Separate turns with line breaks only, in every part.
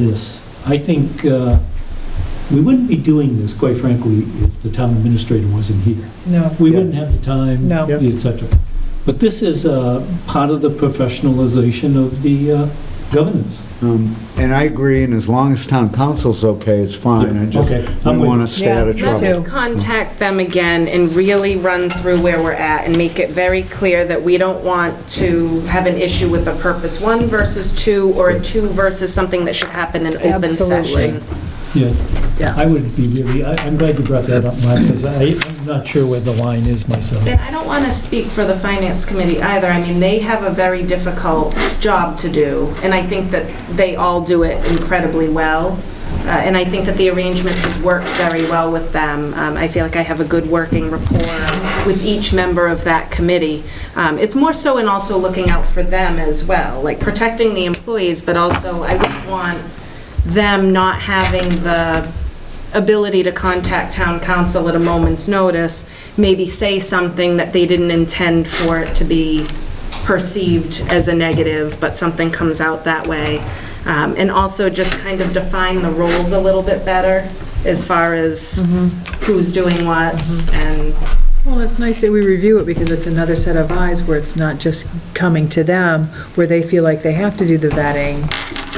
this. I think uh, we wouldn't be doing this, quite frankly, if the town administrator wasn't here.
No,
We wouldn't have the time,
No.
etc. But this is uh, part of the professionalization of the uh, governance.
Um, And I agree, and as long as town council's okay, it's fine. I just,
Okay,
we
I'm with
want to stay out of
Yeah, me
trouble.
too.
Contact them again and really run through where we're at and make it very clear that we don't want to have an issue with a purpose one versus two or a two versus something that should happen in open
Absolutely.
session.
Yeah.
Yeah.
I would be really, I- I'm glad you brought that up, Mark, because I'm not sure where the line is myself.
And I don't want to speak for the finance committee either. I mean, they have a very difficult job to do, and I think that they all do it incredibly well. Uh, And I think that the arrangement has worked very well with them. Um, I feel like I have a good working rapport with each member of that committee. Um, It's more so in also looking out for them as well, like protecting the employees, but also I wouldn't want them not having the ability to contact town council at a moment's notice, maybe say something that they didn't intend for it to be perceived as a negative, but something comes out that way. Um, And also just kind of define the roles a little bit better as far as who's doing what and,
Well, it's nice that we review it because it's another set of eyes where it's not just coming to them, where they feel like they have to do the vetting.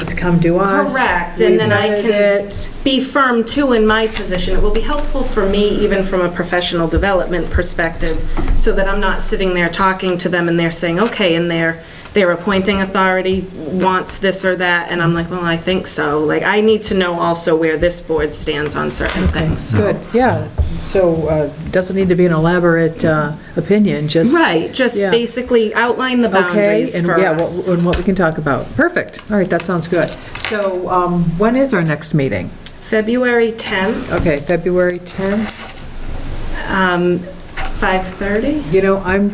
It's come to us.
Correct, and
we
then I
vetted
can-
it.
be firm too in my position. It will be helpful for me, even from a professional development perspective, so that I'm not sitting there talking to them and they're saying, okay, and their, their appointing authority wants this or that, and I'm like, well, I think so. Like, I need to know also where this board stands on certain things, so.
Good, yeah. So, uh, doesn't need to be an elaborate uh, opinion, just.
Right, just
Yeah.
basically outline the
Okay,
boundaries
and
for
yeah,
us.
what- and what we can talk about. Perfect. All right, that sounds good. So, um, when is our next meeting?
February 10th,
Okay, February 10th?
um, 5:30,
You know, I'm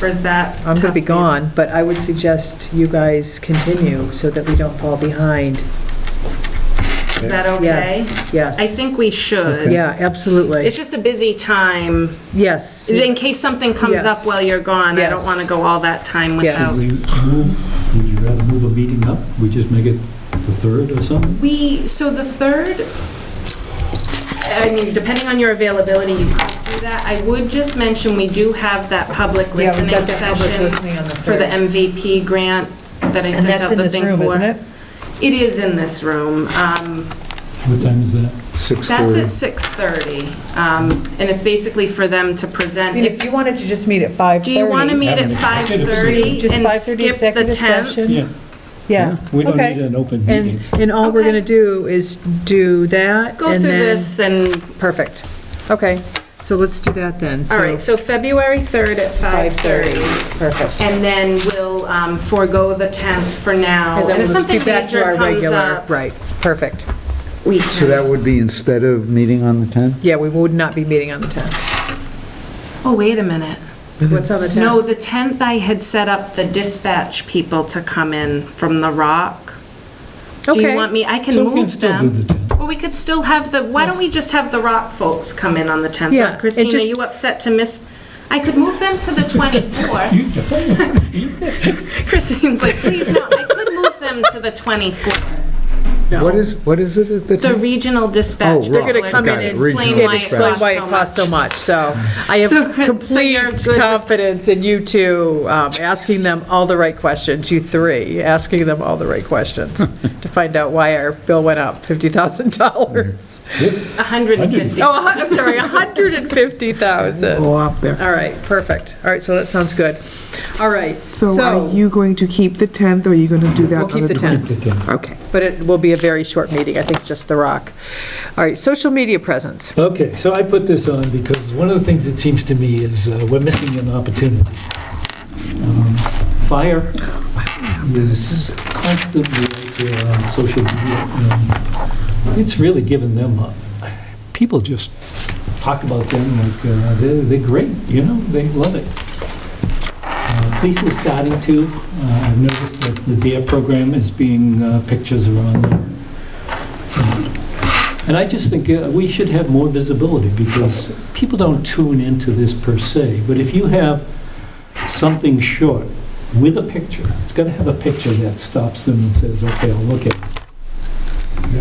or is that?
I'm going to
tough for
be
you?
gone, but I would suggest you guys continue so that we don't fall behind.
Is that okay?
Yes,
I
yes.
think we should.
Yeah, absolutely.
It's just a busy time.
Yes,
In case something comes up
Yes.
while you're gone, I don't
Yes.
want to go all that time
Yes.
without.
Would we move- would you rather move a meeting up? We just make it the third or something?
We, so the third, I mean, depending on your availability, you could do that. I would just mention, we do have that public
Yeah, we've
listening
got that public listening
session
on the
for the
third.
MVP grant that I
and
sent
that's
out
in
the
this
thing for.
room, isn't it?
It is in this room. Um,
What time is that?
That's
6:30.
at 6:30, um, and it's basically for them to
I
present.
mean,
If
if you wanted to just meet at 5:30.
Do you want to meet at
Having a-
5:30
Just
and
5:30
skip the
executive
10th?
session?
Yeah,
Yeah.
we don't
okay.
need an open meeting.
And, and all we're
Okay.
going to do is do that
Go through
and then-
this and,
Perfect. Okay, so let's do that then.
all right, so February 3rd at 5:30.
Perfect.
And then we'll um, forego the 10th for now.
And then
And if
we'll
something
get back to
major
our
comes
regular,
up,
right, perfect.
we
So
can.
that would be instead of meeting on the 10th?
Yeah, we would not be meeting on the 10th.
Oh, wait a minute.
What's on the 10th?
No, the 10th, I had set up the dispatch people to come in from The Rock. Do you
Okay.
want me, I can
So we can
move
still do
them.
the 10th.
Or we could still have the, why don't we just have The Rock folks come in on the 10th?
Yeah, it
Christina,
just-
you upset to miss, I could move them to the 24th. Christine's like, please no, I could move them to the 24th.
What is, what is it at the
The
10th?
regional
Oh,
dispatch.
right. They're
gonna
people
come
would
in and
Explain
Regional
why it
dispatch.
Explain why it
costs
costs so much, so I
So,
have
Chris- so you're
complete
good with-
confidence in you two, um, asking them all the right questions, you three, asking them all the right questions to find out why our bill went up $50,000.
so much. 150.
Oh, a hun- I'm sorry, 150,000.
All up there.
All right, perfect. All right, so that sounds good. All right,
So are
so,
you going to keep the 10th, or are you going to do that
we'll
on the 12th?
keep the 10.
The 10th.
Okay.
but it will be a very short meeting, I think just The Rock. All right, social media presence.
Okay, so I put this on because one of the things that seems to me is uh, we're missing an opportunity. Um, Fire is constantly out there on social media. and It's really given them, a- people just talk about them like uh, they're, they're great, you know, they love it. Uh, Police is starting to, Uh, I've noticed that the DARE E program is being, uh, pictures are on there. And I just think uh, we should have more visibility, because people don't tune into this per se, but if you have something short with a picture, it's got to have a picture that stops them and says, okay, I'll look at it.